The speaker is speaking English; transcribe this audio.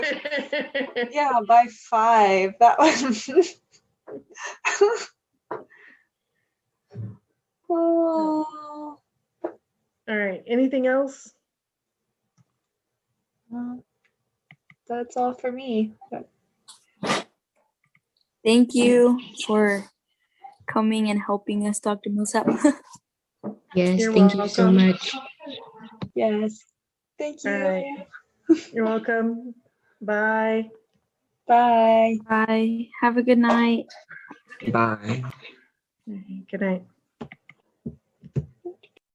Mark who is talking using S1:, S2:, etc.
S1: yeah, by five. That was. oh,
S2: All right, anything else?
S1: well, that's all for me.
S3: Thank you for coming and helping us, Dr. Millsap.
S4: Yes,
S2: You're
S4: thank you so
S2: welcome.
S4: much.
S1: Yes. Thank you.
S2: All right. You're welcome. Bye.
S1: Bye.
S3: Bye. Have a good night.
S5: Bye.
S2: Good night.